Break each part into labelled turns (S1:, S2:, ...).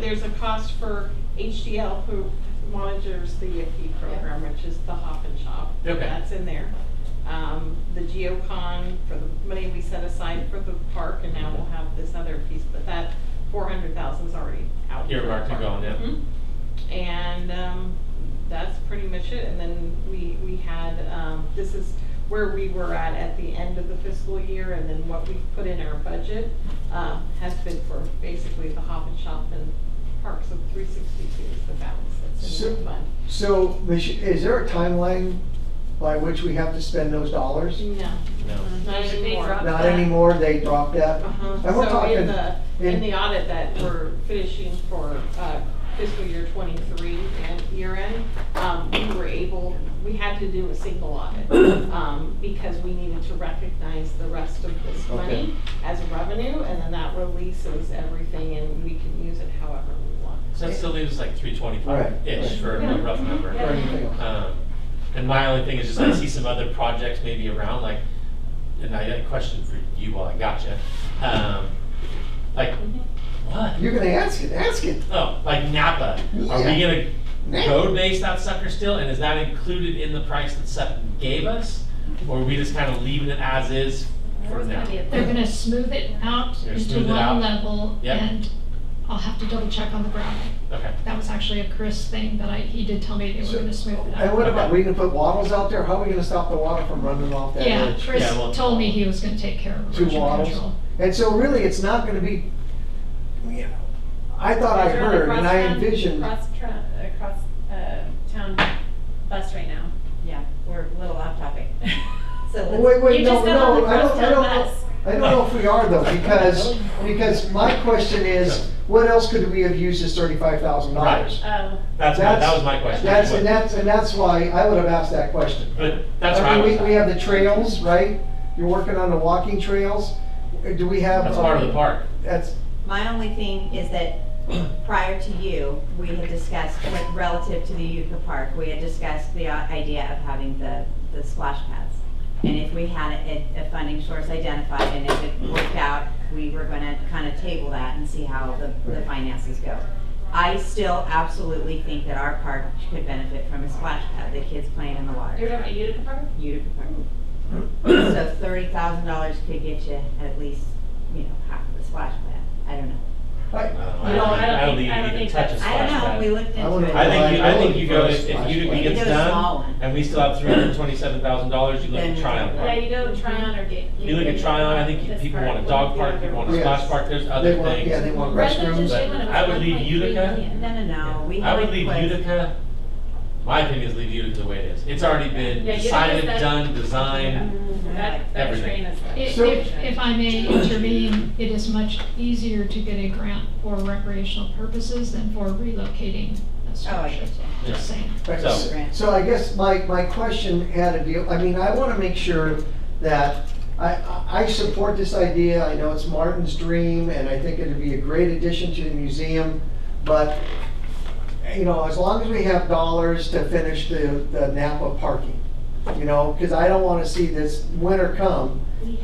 S1: there's a cost for HDL who monitors the IFE program, which is the Hop and Shop.
S2: Okay.
S1: That's in there. Um, the Geocon for the money we set aside for the park, and now we'll have this other piece, but that four hundred thousand's already out. for the
S2: Earmarked and
S1: park.
S2: gone, yeah.
S1: Mhm. And, um, that's pretty much it, and then we, we had, um, this is where we were at at the end of the fiscal year, and then what we put in our budget, um, has been for basically the Hop and Shop and Parks of three sixty-two is the balance that's in that
S3: So-
S1: fund.
S3: So, Mich- is there a timeline by which we have to spend those dollars?
S1: No,
S2: No.
S1: not
S4: They dropped
S1: anymore.
S3: Not anymore, they dropped that?
S1: Uh-huh.
S3: And we're
S1: So in
S3: talking,
S1: the, in the audit that we're finishing for uh, fiscal year twenty-three and year end, um, we were able, we had to do a single audit, um, because we needed to recognize the rest of this
S3: Okay.
S1: money as revenue, and then that releases everything, and we can use it however we want.
S2: So that still leaves us like three
S3: Right,
S2: twenty-five-ish
S3: right.
S2: for a rough number.
S3: or anything else?
S2: Um, And my only thing is just I see some other projects maybe around, like, and I had a question for you while I got you. Um, Like, what?
S3: You're gonna ask it, ask it.
S2: Oh, like Napa. Are we gonna road base that sucker still, and is that included in the price that Sutton gave us? Or are we just kind of leaving it as is for now?
S5: They're gonna smooth it out
S2: They're gonna
S5: into
S2: smooth it
S5: one
S2: out.
S5: level
S2: Yep.
S5: and I'll have to double check on the gravel.
S2: Okay,
S5: That was actually a Chris thing that I, he did tell me they
S3: So-
S5: were gonna smooth it
S3: And
S5: out.
S3: what about, we gonna put wattles out there? How are we gonna stop the water from running off that
S5: Yeah,
S3: edge?
S5: Chris
S2: Yeah, well-
S5: told me he was gonna take care of
S3: Two
S5: erosion
S3: wattles?
S5: control.
S3: And so really, it's not gonna be, you know, I thought I heard and I envisioned,
S4: Cross, tra- uh, cross, uh, town bus right now. Yeah, we're a little off topic. So let's-
S3: Wait, wait,
S4: you
S3: no,
S4: just got
S3: no,
S4: on the
S3: I don't- I
S4: crosstown
S3: don't know.
S4: bus.
S3: I don't know if we are though, because, because my question is, what else could we have used as thirty-five thousand dollars?
S4: Oh,
S2: that's, my- that was my question.
S3: That's, and that's, and that's why I would have asked that question.
S2: But that's where I
S3: mean,
S2: was
S3: We, we
S2: at.
S3: have the trails, right? You're working on the walking trails. Do we have? uh,
S2: That's part of the park.
S3: That's,
S6: My only thing is that prior to you, we had discussed, like, relative to the Utica Park, we had discussed the i- idea of having the, the splash pads. And if we had a, a funding source identified and if it worked out, we were gonna kind of table that and see how the, the finances go. I still absolutely think that our park could benefit from a splash pad, the kids playing in the
S4: you're
S6: water.
S4: talking about Utica Park?
S6: Utica Park. So thirty thousand dollars could get you at least, you know, half of the splash pad. I don't know.
S3: I,
S2: I
S4: No,
S2: don't,
S4: I don't
S2: I don't think
S4: think- I
S2: you
S4: don't
S2: even
S4: think
S2: touch a
S4: that's-
S2: splash
S6: I don't know,
S2: pad.
S6: we looked
S3: I wouldn't
S6: into
S2: I
S6: it.
S2: think you, I think you go,
S3: First
S2: if if Utica
S3: flashlight.
S2: gets
S6: It was small
S2: done,
S6: one.
S2: and we still have three hundred and twenty-seven thousand dollars, you look
S6: Then
S2: at
S6: it's
S2: Tryon
S4: Yeah,
S2: Park.
S4: you go try on or get.
S2: You look at Tryon, I think you-
S4: This
S2: people
S4: park
S2: want a
S4: would
S2: dog
S4: be
S2: park,
S4: other
S2: people want a
S4: ones.
S3: Yes.
S2: splash park, there's
S3: they
S2: other
S3: want, yeah,
S2: things.
S3: they want
S4: Residents
S3: restrooms.
S4: just want
S2: I would leave
S4: 1.3
S2: Utica.
S4: million.
S6: No, no, no, we
S2: I
S6: had
S2: would
S6: a
S2: leave
S6: quiz.
S2: Utica, my opinion is leave Utica the way it is. It's already been
S4: Yeah, Utica's
S2: decided,
S4: been-
S2: done, designed.
S1: Mm-hmm.
S4: That, that
S2: Everything.
S4: train is.
S5: If,
S3: So-
S5: if, if I may intervene, it is much easier to get a grant for recreational purposes than for relocating a
S6: Oh, I
S5: structure.
S6: get
S5: Just saying.
S2: So-
S3: So I guess my, my question had to deal, I mean, I want to make sure that, I, I- I support this idea, I know it's Martin's dream, and I think it'd be a great addition to the museum, but, you know, as long as we have dollars to finish the, the Napa parking, you know, because I don't want to see this winter come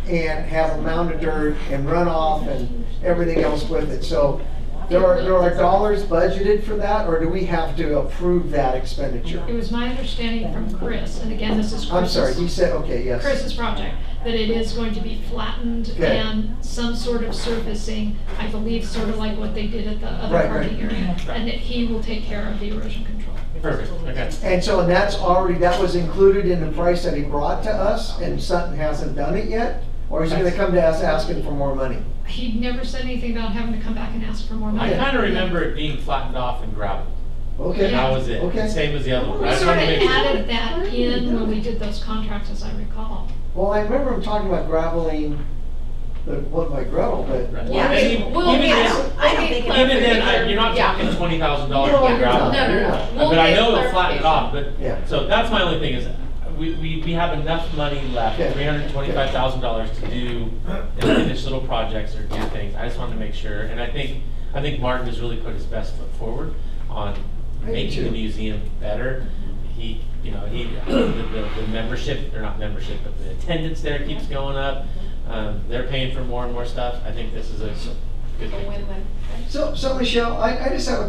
S3: and have a mound of dirt and runoff and everything else with it, so there are, there are dollars budgeted for that, or do we have to approve that expenditure?
S5: It was my understanding from Mm-hmm. Chris, and again, this is Chris's.
S3: I'm sorry, he said, okay, yes.
S5: Chris's project, that it is going to be flattened
S3: Okay.
S5: and some sort of surfacing, I believe, sort of like what they did at the other
S3: Right,
S5: parking
S3: right.
S5: area. And that he will take care of the erosion control.
S2: Perfect, okay.
S3: And so, and that's already, that was included in the price that he brought to us, and Sutton hasn't done it yet? Or is he gonna come to us asking for more money?
S5: He never said anything about having to come back and ask for more
S2: I
S5: money.
S2: kind of remember it being flattened off and gravel.
S3: Okay,
S2: That was it,
S3: Okay.
S2: same as the other one.
S5: We
S2: I just
S5: sort of
S2: wanted to make sure.
S5: added that in when we did those contracts, as I recall.
S3: well, I remember him talking about graveling, the, what, my gravel, but.
S2: Right.
S6: Yeah.
S2: And even-
S5: We'll
S2: even
S5: get-
S2: this-
S6: I don't think.
S2: Even then, I- you're not talking twenty thousand dollars
S3: No,
S2: for
S3: you're
S2: gravel.
S3: not. No, no, no.
S2: But I know it flattened off, but,
S3: Yeah.
S2: so that's my only thing is, we, we, we have enough money left,
S3: Yeah.
S2: three hundred and twenty-five thousand dollars to do and finish little projects or do things. I just wanted to make sure, and I think, I think Martin has really put his best foot forward on
S3: I do
S2: making the
S3: too.
S2: museum better. He, you know, he, the, the, the membership, or not membership, but the attendance there keeps going up. Um, they're paying for more and more stuff. I think this is a Good
S4: a
S2: thing.
S4: win-win.
S3: So, so Michelle, I, I just have a